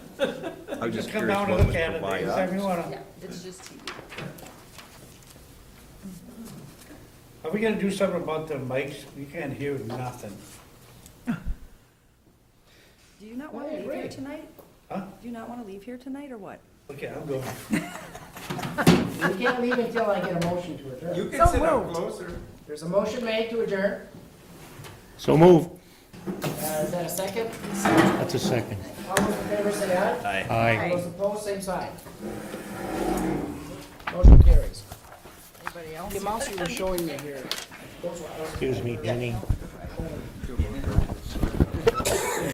I was just Come curious down what and was look at it, anytime you provided. wanna. Yeah, it's just TV. Are we gonna do something about the mics? We can't hear nothing. Do you not want to Hey, leave here great. tonight? Huh? Do you not want to leave here tonight, or what? Okay, I'm going. You can't leave until I get a motion to adjourn. You can sit up closer. There's a motion made to adjourn. So move. Uh, Is that a second? That's a second. All those in favor say aye. Aye. All those opposed, same side. Motion carries. Anybody else? The amounts you were showing me here, those were Excuse me, Jenny.